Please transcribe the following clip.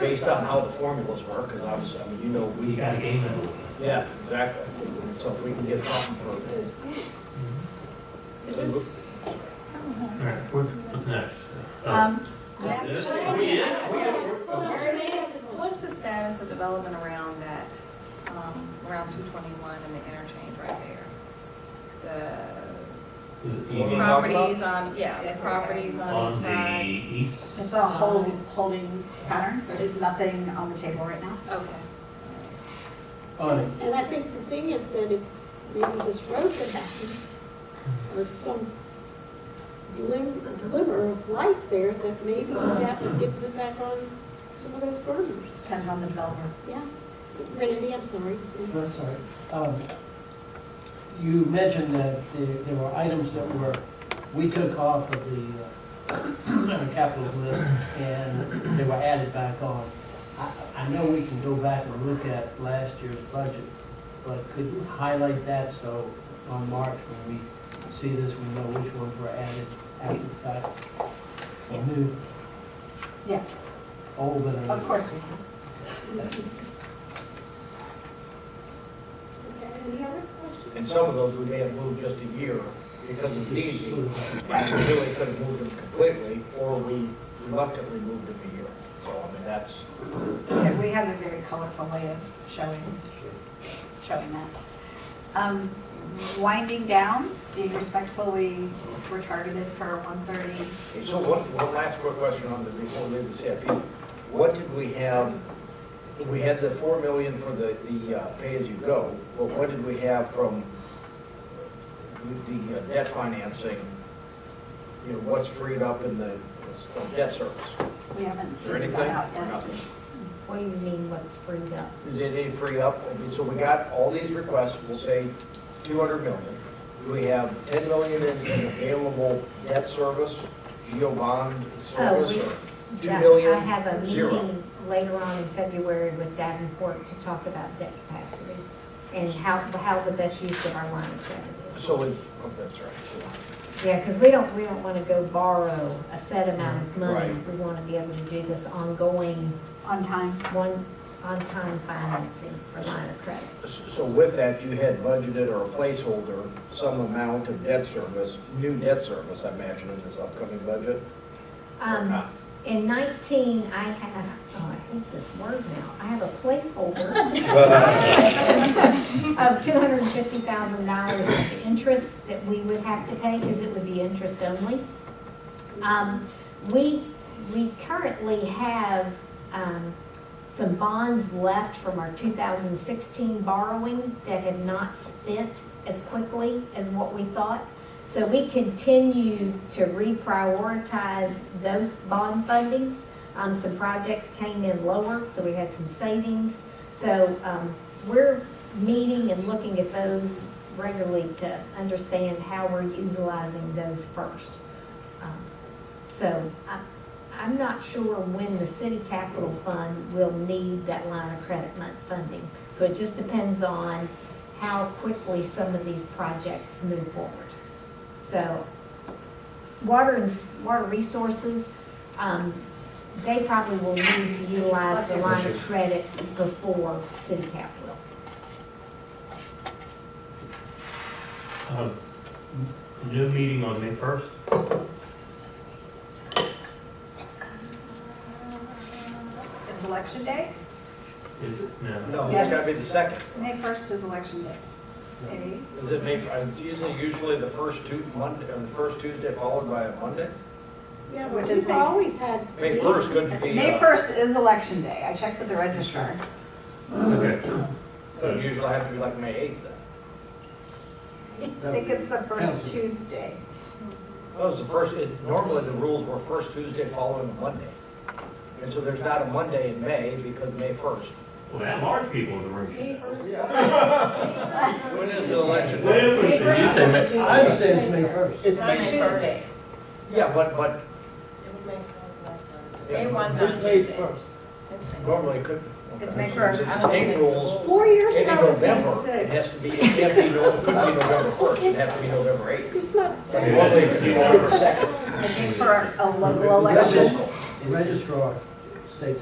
based on how the formulas work, because obviously, I mean, you know, we. You got a game in Yeah, exactly. So if we can get something for, All right, what- what's next? Oh, Um, is this- are we in? Are we in? What's the status of development around that, um, around 221 and the interchange right there? The The talking EV about? properties on, yeah, the properties on On each the side. east. It's a holding, holding pattern, there's nothing on the table right now. Okay. And I think the thing is that if maybe this road could happen, or some glim- glimmer of light there, that maybe that would get put back on some of those burners. Depends on the developer. Yeah. Randy, I'm sorry. I'm sorry. Um, You mentioned that there there were items that were, we took off of the uh, capital list and they were added back on. I- I know we can go back and look at last year's budget, but could you highlight that so on March when we see this, we know which ones were added after the fact? Yes. New, Yeah, old, and. of course we can. Okay, any other questions? and some of those we may have moved just a year because it's easy. And we really could have moved them completely, or we reluctantly moved them a year. So, I mean, that's, Yeah, we have a very colorful way of showing, showing that. Um, Winding down, being respectful, we were targeted for 1:30. okay, so one, one last quick question on the, before we leave the CIP. What did we have, we had the four million for the, the uh, pay-as-you-go, but what did we have from the- the uh, debt financing? You know, what's freed up in the uh, debt service? We haven't Is there figured anything? that out Or yet. nothing? What do you mean what's freed up? Did they free up? I mean, so we got all these requests, we'll say 200 million. We have 10 million in in available debt service, geo bond service, Oh, we- or 2 Yeah, million, I have a zero. meeting later on in February with Davenport to talk about debt capacity and how, how the best use of our line of credit is. So is, oh, that's right. so- Yeah, because we don't, we don't want to go borrow a set amount of money. Right. We want to be able to do this ongoing, On time, one, on-time financing for line of credit. So with that, you had budgeted or a placeholder, some amount of debt service, new debt service, I imagine, in this upcoming budget? or Um, not? In 19, I have, oh, I hate this word now, I have a placeholder of $250,000 of interest that we would have to pay, because it would be interest only. Um, We, we currently have um, some bonds left from our 2016 borrowing that have not spent as quickly as what we thought. So we continue to reprioritize those bond fundings. Um, Some projects came in lower, so we had some savings. So um, we're meeting and looking at those regularly to understand how we're utilizing those first. Um, So I- I'm not sure when the city capital fund will need that line of credit mon- funding. So it just depends on how quickly some of these projects move forward. So, water and, s- water resources, um, they probably will need to utilize the line of credit before city capital. Um, New meeting on May 1st? it's election day. Is it? No. No, it's got to be the second. May 1st is election day. Maybe. Is it May, it's usually, usually the first Tu, Monday, or the first Tuesday followed by a Monday? Yeah, Which but is we've May- always had. May 1st couldn't be. May uh, 1st is election day. I checked with the registrar. Okay. So it usually have to be like May 8th then. I think it's the first Tuesday. That was the first, it- normally the rules were first Tuesday following a Monday. And so there's not a Monday in May because May 1st. Well, that large people in the room. May should know. first. When is the election? What is it? You said that. I understand it's May 1st. It's May 1st. Yeah, but, but It was May first last time. Yeah. They want us It's to. May do that. 1st. normally it couldn't. It's May 1st. It's the state rules. Four years In ago, it was May November, it sixth. has to be, it can't be, no- it couldn't be November 1st, it'd have to be November 8th. It's not, But normally it could be November 2nd. I think for a local That's election, local. Registrar